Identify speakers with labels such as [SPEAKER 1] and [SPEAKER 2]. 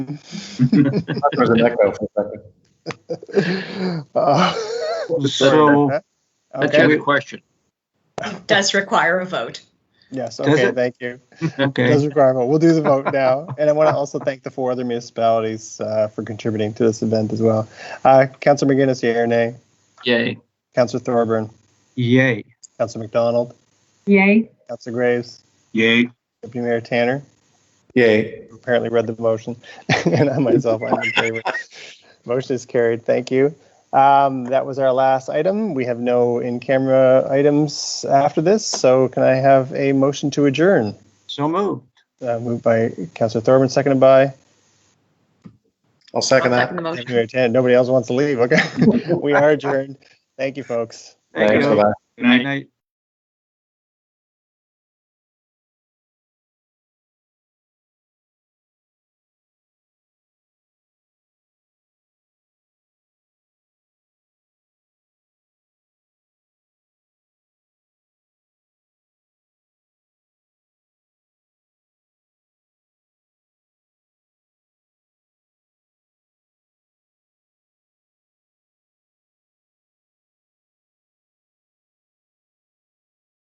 [SPEAKER 1] There's an echo for a second.
[SPEAKER 2] Uh, sorry about
[SPEAKER 3] So
[SPEAKER 2] that.
[SPEAKER 3] that's your
[SPEAKER 2] Okay,
[SPEAKER 3] question.
[SPEAKER 4] It does require a vote.
[SPEAKER 2] yes,
[SPEAKER 3] Does
[SPEAKER 2] okay,
[SPEAKER 3] it?
[SPEAKER 2] thank you. Does
[SPEAKER 3] Okay.
[SPEAKER 2] require a vote. We'll do the vote now. And I want to also thank the four other municipalities uh, for contributing to this event as well. Uh, Councilor McGinnis, yea or nay?
[SPEAKER 3] Yay.
[SPEAKER 2] Councilor Thorburn?
[SPEAKER 3] Yay.
[SPEAKER 2] Councilor McDonald?
[SPEAKER 5] Yay.
[SPEAKER 2] Councilor Graves?
[SPEAKER 6] Yay.
[SPEAKER 2] Deputy Mayor Tanner?
[SPEAKER 1] Yay.
[SPEAKER 2] apparently read the motion, and I myself, I'm in favor. Motion is carried. Thank you. Um, that was our last item. We have no in-camera items after this, so can I have a motion to adjourn?
[SPEAKER 3] So moved.
[SPEAKER 2] Uh, moved by Councilor Thorburn, seconded by
[SPEAKER 1] I'll
[SPEAKER 4] I'll
[SPEAKER 1] second that.
[SPEAKER 4] second the motion.
[SPEAKER 2] Mayor Tan. Nobody else wants to leave. Okay, we are adjourned. Thank you, folks.
[SPEAKER 3] Thank
[SPEAKER 1] Thanks for
[SPEAKER 3] you.
[SPEAKER 1] that.
[SPEAKER 6] Good night.
[SPEAKER 3] Night.